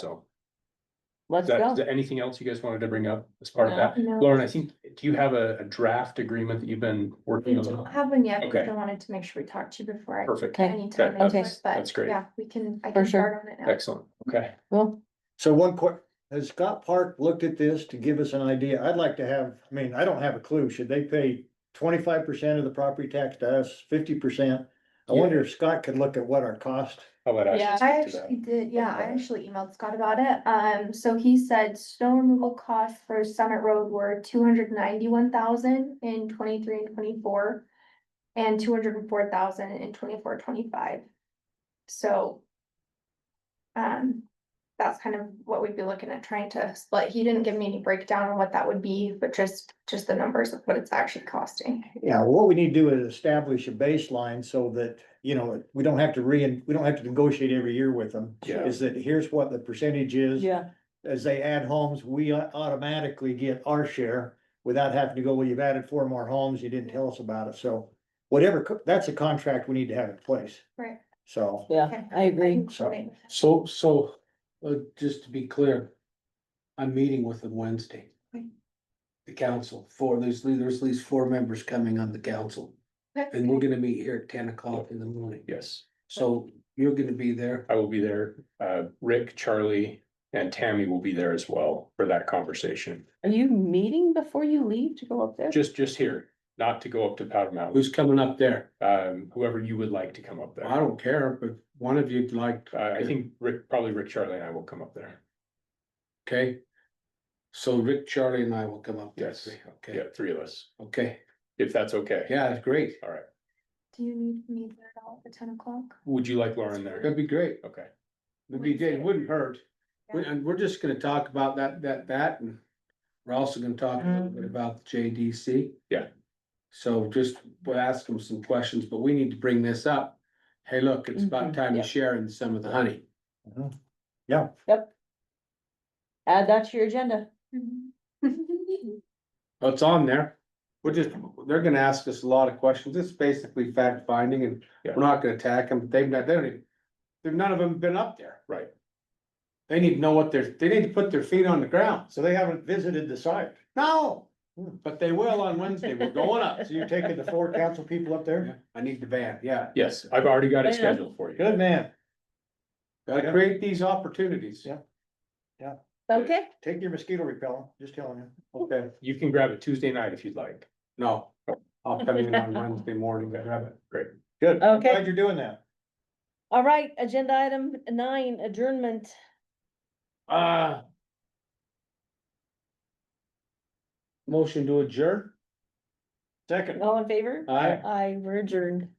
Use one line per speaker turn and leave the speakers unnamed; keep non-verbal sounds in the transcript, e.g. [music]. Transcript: So,
Let's
is that,
go.
is there anything else you guys wanted to bring up as part of that?
No,
Lauren, I think, do you have a, a draft agreement that you've been
we
working
don't
on?
have one yet, because
Okay.
I wanted to make sure we talked to you before. I
Perfect,
Okay.
Anytime,
Okay,
that's-
but
that's great.
yeah, we can, I
For
can
sure.
start on it now.
excellent, okay.
Well,
So one quick, has Scott Park looked at this to give us an idea? I'd like to have, I mean, I don't have a clue. Should they pay twenty-five percent of the property tax to us, fifty percent? I wonder if Scott could look at what our cost,
How about
Yeah.
I
I?
actually did, yeah, I
Okay.
actually emailed Scott about it, um, so he said snow removal costs for Summit Road were two hundred ninety-one thousand in twenty-three and twenty-four. And two hundred and four thousand in twenty-four, twenty-five. So. Um, that's kind of what we'd be looking at trying to split, he didn't give me any breakdown on what that would be, but just, just the numbers of what it's actually costing.
you know, what we need to do is establish a baseline so that, you know, we don't have to re, we don't have to negotiate every year with them.
Yeah.
Is that here's what the percentage is.
yeah,
as they add homes, we au- automatically get our share without having to go, well, you've added four more homes, you didn't tell us about it, so whatever, co- that's a contract we need to have in place.
Right.
So,
yeah, I agree.
so-
So, so, uh, just to be clear, I'm meeting with them Wednesday.
Okay.
The council, four, there's, there's at least four members coming on the council, and we're gonna meet here at ten o'clock in the morning.
Yes,
So you're gonna be there,
I will be there. Uh, Rick, Charlie, and Tammy will be there as well for that conversation.
Are you meeting before you leave to go up there?
Just, just here, not to go up to Powder Mountain,
who's coming up there?
um, whoever you would like to come up
I
there.
don't care, but one of you'd like,
Uh, I think Rick, probably Rick, Charlie and I will come up there.
okay? So Rick, Charlie and I will come up. there,
Yes. Yeah,
Okay,
three of us,
okay,
if that's okay.
yeah, it's great,
All right.
Do you need me there at all at ten o'clock?
Would you like Lauren there?
that'd be great,
Okay.
it'd be, good. it wouldn't hurt. We-
Yeah.
And we're just gonna talk about that, that, that, and we're also gonna talk a little bit about the JDC.
Yeah.
So just, we'll ask them some questions, but we need to bring this up. Hey, look, it's about
Mhm,
time
yeah.
to share in some of the honey.
mhm. yeah,
Add that to your agenda.
嗯 [laughs]
Well, It's on there. We're just, they're gonna ask us a lot of questions. It's basically fact finding and
Yeah.
we're not gonna attack them. They've not, they don't even, they've none of them been up there.
Right.
They need to know what they're, they need to put their feet on the ground.
so they haven't visited the site.
No, but they will on Wednesday. We're going up.
So you're taking the four council people up there?
I need the van, yeah.
Yes, I've already got it
Yeah.
scheduled for you.
Good man,
Gotta
Yeah.
create these opportunities.
Yeah.
Okay,
take your mosquito repellent, just telling you.
Okay,
You can grab it Tuesday night if you'd like.
no, I'll come in on Wednesday morning to grab it.
Great.
Good. I'm
Okay.
Glad you're doing that.
all right, agenda item nine, adjournment.
Uh. Motion to adjourn?
Second.
All in favor?
Aye.
Uh,
Aye, we're adjourned.